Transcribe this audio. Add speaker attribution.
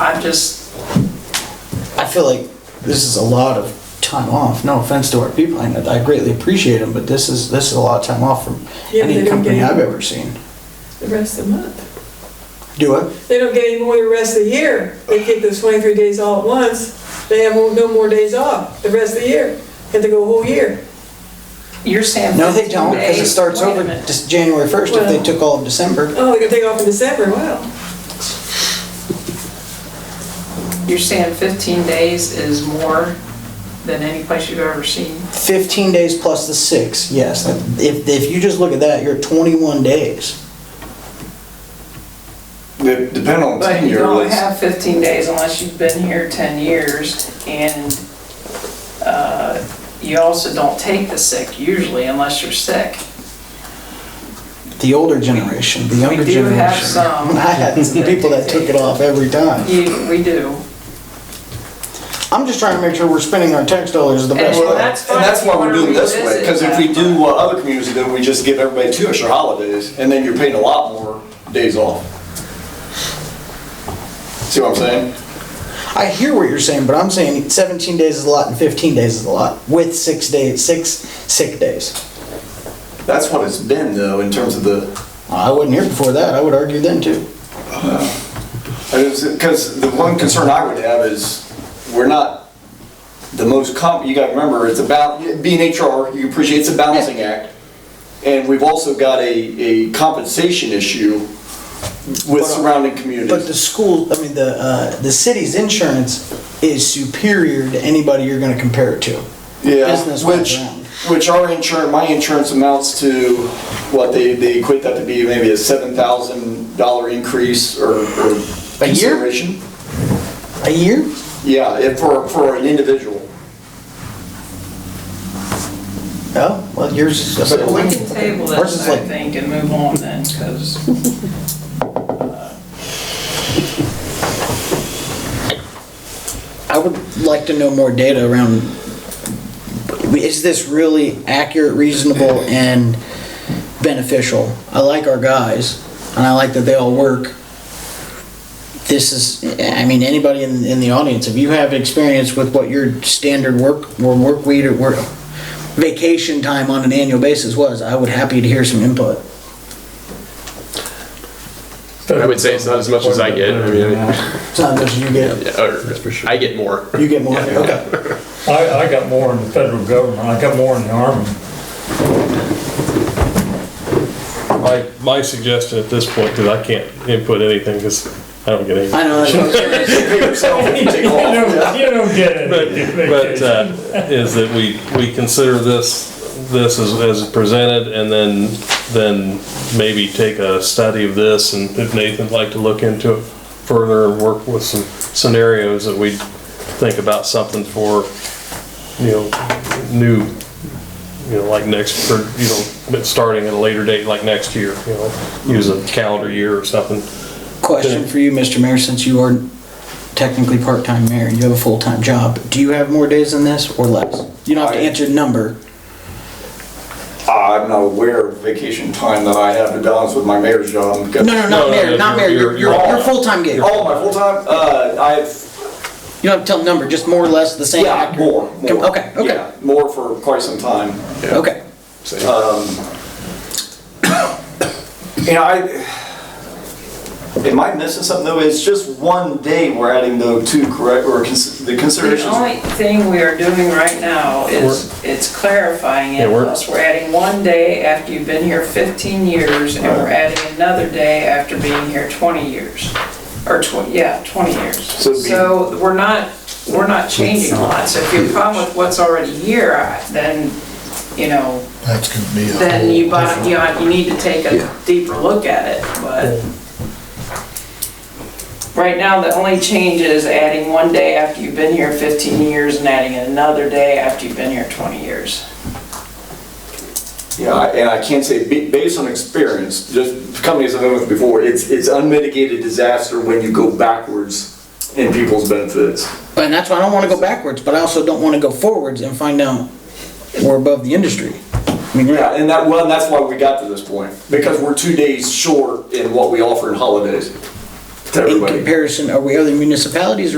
Speaker 1: I'm just,
Speaker 2: I feel like this is a lot of time off. No offense to our people, I know- I greatly appreciate them, but this is, this is a lot of time off from
Speaker 3: Yeah, but
Speaker 2: any
Speaker 3: they don't
Speaker 2: company
Speaker 3: get it.
Speaker 2: I've ever seen.
Speaker 3: the rest of the month.
Speaker 2: Do it.
Speaker 3: They don't get any more the rest of the year. They get those 23 days all at once. They have no more days off the rest of the year. Have to go a whole year.
Speaker 1: you're saying.
Speaker 2: No, they
Speaker 1: 15
Speaker 2: don't, because it
Speaker 1: days?
Speaker 2: starts
Speaker 1: Wait a
Speaker 2: over
Speaker 1: minute.
Speaker 2: just January first if they
Speaker 3: Well-
Speaker 2: took all of December.
Speaker 3: Oh, they can take off in December, wow.
Speaker 1: You're saying 15 days is more than any place you've ever seen?
Speaker 2: Fifteen days plus the six, yes. If, if you just look at that, you're at twenty-one days.
Speaker 4: Dep- Depend on
Speaker 1: But you
Speaker 4: tenure,
Speaker 1: don't
Speaker 4: let's,
Speaker 1: have 15 days unless you've been here 10 years, and uh, you also don't take the sick usually unless you're sick.
Speaker 2: The older generation, the younger
Speaker 1: do
Speaker 2: generation.
Speaker 1: have some.
Speaker 2: I had some people that took it off every time.
Speaker 1: You- We do.
Speaker 2: I'm just trying to make sure we're spending our tax dollars the best
Speaker 1: Well,
Speaker 2: way.
Speaker 1: that's fine
Speaker 4: and that's
Speaker 1: if you
Speaker 4: why we're
Speaker 1: wanna
Speaker 4: doing it this way,
Speaker 1: revisit
Speaker 4: because if
Speaker 1: that.
Speaker 4: we do what other communities do, we just give everybody two extra holidays, and then you're paying a lot more days off. See what I'm saying?
Speaker 2: I hear what you're saying, but I'm saying 17 days is a lot and 15 days is a lot with six days, six sick days.
Speaker 4: That's what it's been though, in terms of the,
Speaker 2: I wasn't here before that. I would argue then too.
Speaker 4: because the one concern I would have is, we're not the most comp, you gotta remember, it's about, being HR, you appreciate, it's a balancing act. And we've also got a, a compensation issue with surrounding communities.
Speaker 2: But the school, I mean, the uh, the city's insurance is superior to anybody you're going to compare it to.
Speaker 4: Yeah,
Speaker 2: Business
Speaker 4: which,
Speaker 2: background.
Speaker 4: which our insurance, my insurance amounts to, what, they, they equate that to be maybe a seven thousand dollar increase or, or
Speaker 2: A year?
Speaker 4: consideration.
Speaker 2: A year?
Speaker 4: Yeah, if for, for an individual.
Speaker 2: Oh, well, yours is. a
Speaker 1: So we can table
Speaker 2: Ours
Speaker 1: this,
Speaker 2: is
Speaker 1: I
Speaker 2: like-
Speaker 1: think, and move on then, because
Speaker 2: I would like to know more data around, is this really accurate, reasonable, and beneficial? I like our guys, and I like that they all work. This is, I mean, anybody in, in the audience, if you have experience with what your standard work, or work week, or work, vacation time on an annual basis was, I would happy to hear some input.
Speaker 5: I would say it's not as much as I get. I mean,
Speaker 2: It's not much you get,
Speaker 5: yeah, or I get more.
Speaker 2: you get more, okay.
Speaker 6: I, I got more in the federal government, I got more in the army.
Speaker 7: My, my suggestion at this point, because I can't input anything, because I don't get anything.
Speaker 2: I know, that's what I'm saying.
Speaker 4: Pay yourself and take off.
Speaker 6: don't, you don't get it.
Speaker 7: But, but, uh, is that we, we consider this, this as, as presented, and then, then maybe take a study of this, and if Nathan'd like to look into it further and work with some scenarios that we think about something for, you know, new, you know, like next, for, you know, but starting at a later date, like next year, you know, use a calendar year or something.
Speaker 2: Question for you, Mr. Mayor, since you are technically part-time mayor and you have a full-time job, do you have more days than this or less? You don't have to
Speaker 4: I-
Speaker 2: answer number.
Speaker 4: I'm not aware of vacation time that I have to balance with my mayor's job.
Speaker 2: No, no,
Speaker 7: No,
Speaker 2: not
Speaker 7: no,
Speaker 2: mayor,
Speaker 7: no,
Speaker 2: not
Speaker 7: you're-
Speaker 2: mayor, your,
Speaker 7: you're-
Speaker 2: your,
Speaker 4: you're
Speaker 2: your
Speaker 4: all-
Speaker 2: full-time gig. You
Speaker 4: All my full-time, uh, I have
Speaker 2: don't have to tell number, just more or less the same.
Speaker 4: Yeah,
Speaker 2: accurate-
Speaker 4: more, more.
Speaker 2: Okay, okay,
Speaker 4: Yeah, More for quite some time.
Speaker 2: okay.
Speaker 4: You know, I, am I missing something though? It's just one day we're adding though to correct, or cons- the
Speaker 1: the
Speaker 4: considerations.
Speaker 1: only thing we are doing right now is, it's clarifying it,
Speaker 7: Yeah, we're-
Speaker 1: plus we're adding one day after you've been here 15 years, and we're adding another day after being here 20 years, or 20, yeah, 20 years.
Speaker 4: So it'd be-
Speaker 1: So we're not, we're not changing lots, if you're problem with what's already here, I- then, you know,
Speaker 8: That's gonna be a
Speaker 1: then you
Speaker 8: whole
Speaker 1: bought, you
Speaker 8: different.
Speaker 1: know, you need to take a deeper look at it, but right now, the only change is adding one day after you've been here fifteen years and adding another day after you've been here twenty years.
Speaker 4: Yeah, I- and I can't say, ba- based on experience, just companies I've been with before, it's, it's unmitigated disaster when you go backwards in people's benefits.
Speaker 2: And that's why I don't wanna go backwards, but I also don't wanna go forwards and find out we're above the industry. I mean,
Speaker 4: Yeah, and that, well, and that's why we got to this point, because we're two days short in what we offer in holidays.
Speaker 5: To
Speaker 2: in
Speaker 5: everybody.
Speaker 2: comparison, are we other municipalities